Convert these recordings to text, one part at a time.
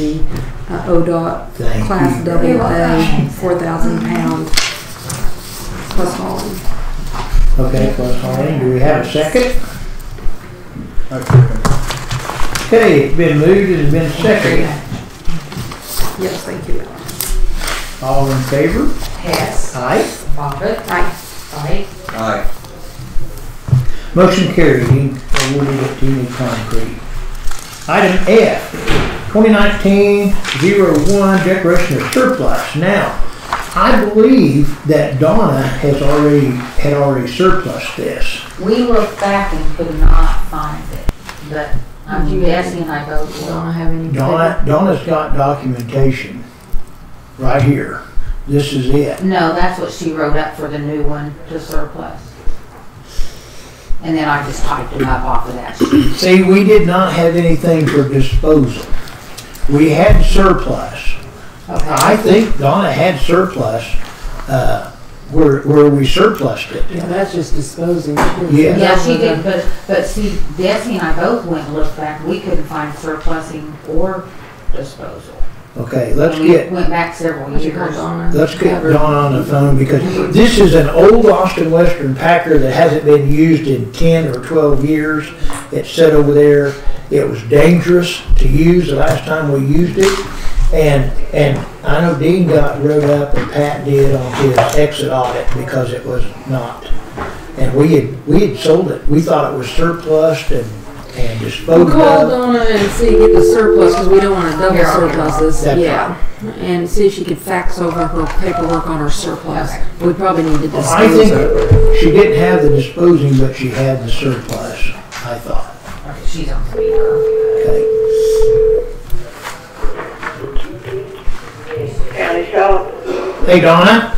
the uh, ODOT Thank Class you. Double A, welcome. four thousand pound plus hauling. Okay, plus Harley, do we have a second? I second. Okay, it's been moved and it's been seconded. Yes, thank you. All in favor? Hess. Aye. Bobbit. Aye. Aye. Aye. Motion carried, You awarded it to Union Concrete. Item F, 2019-01, declaration of surplus. Now, I believe that Donna has already, had already surplus this. We looked back and could not find it, but I'm You- guessing I go, Don't well, have any. Donna, Donna's got documentation right here. This is it. no, that's what she wrote up for the new one to surplus. And then I just typed it up off of that sheet. See, we did not have anything for disposal. We had surplus. I Okay. think Donna had surplus, uh, where, where we surplused it. Yeah, that's just disposing. Yeah. Yeah, she did, but, but see, Desi and I both went and looked back, we couldn't find surplusing or disposal. Okay, let's And we get, Went back several Would you call years. Donna? let's get Donna on the phone because this is an old Austin Western Packer that hasn't been used in ten or twelve years. It's set over there. It was dangerous to use the last time we used it. And, and I know Dean got wrote up and Pat did on his exit audit because it was not. And we had, we had sold it. We thought it was surplus and, and We'll disposed call of. Donna and see, get the surplus, because we don't want to double Here, I'll get surpluses, That's yeah. And see if she could fax over her paperwork on her surplus. We probably need to I dispose of it. think she didn't have the disposing, but she had the surplus, I thought. Okay, She's on speaker. Okay. County Shop? Hey Donna,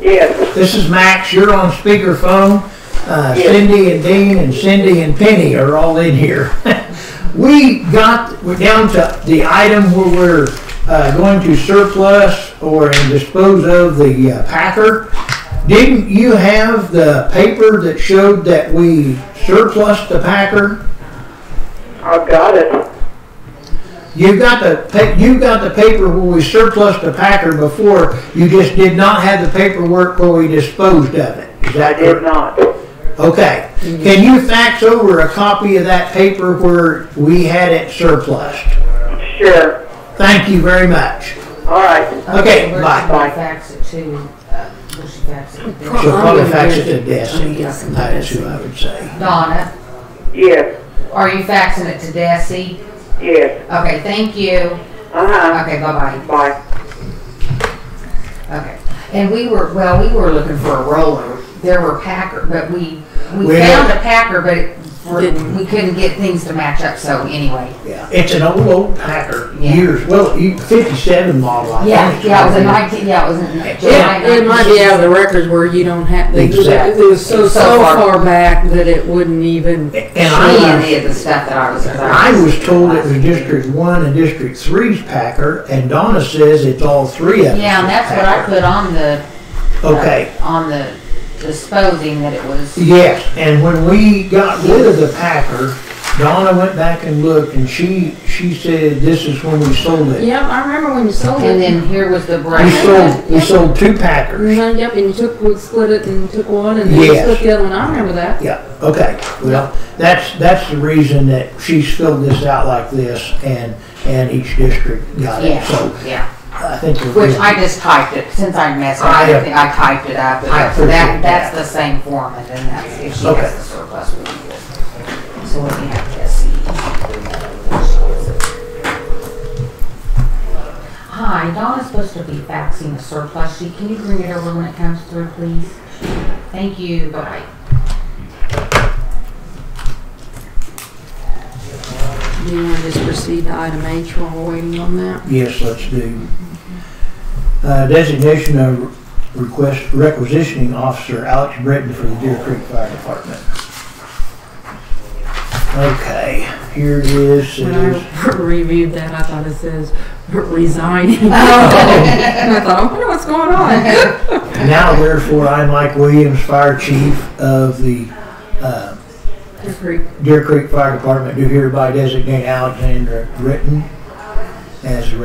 Yes. this is Max. You're on speakerphone. Uh, Cindy and Dean and Cindy and Penny are all in here. we got, we're down to the item where we're uh, going to surplus or and dispose of the uh, Packer. Didn't you have the paper that showed that we surplus the Packer? I've got it. You got the, pa- you got the paper where we surplus the Packer before, you just did not have the paperwork where we disposed of it. Is I that did correct? not. Okay. Can you fax over a copy of that paper where we had it surplused? Sure. Thank you very much. All right. Okay, where's bye. the Bye. Fax it to, uh, where's she fax it to? She'll probably fax it to I'm guessing Desi, that is who I would say. Donna, Yes. are you faxing it to Desi? Yes. Okay, thank you. Uh-huh. Okay, bye-bye. Bye. Okay. And we were, well, we were looking for a roller. There were Packer, but we, we We had- found a Packer, but it- we're- we couldn't get things to match up, so anyway. Yeah, it's an old, old Packer, Yeah. years, well, you- fifty-seven model, I think. Yeah, yeah, it was a nineteen, yeah, it was in July Yeah, it might be out of the records where you don't have, they, it was so, so far back that it wouldn't even, And I She was- and the stuff that I was. that I was told it was District One and District Three's Packer, and Donna says it's all three of them. Yeah, and that's what I put on the, Okay, Uh, on the disposing that it was. yes, and when we got rid of the Packer, Donna went back and looked, and she, she said this is when we sold it. yeah, I remember when you sold And it. then here was the We brand. sold, we sold two Packers. Mm-hmm. Mhm, Yep, and you took, we split it and took one and then you Yes. split the other one, I remember that. Yeah, okay, well, that's, that's the reason that she's filled this out like this, and, and each district got it, so Yeah, yeah. I think. we're Which good. I just typed it, since I messed up, I- I think I typed it up. I So that, appreciate that's that. the same form, and then that's, if she Okay. has the surplus, we do it. So let me have Jesse. Hi, Donna's supposed to be faxing the surplus sheet. Can you bring it over when it comes through, please? Thank you, bye. Do you want to just proceed to item H while we're waiting on that? Yes, let's do. Uh, Designation of request requisitioning officer Alex Britton for the Deer Creek Fire Department. Okay, here it is. It When is- I reviewed that, I thought it says resigning. And I thought, I wonder what's going on. Now therefore, I, Mike Williams, Fire Chief of the uh, Deer Creek Fire Department, do hereby designate Alexander Britton as the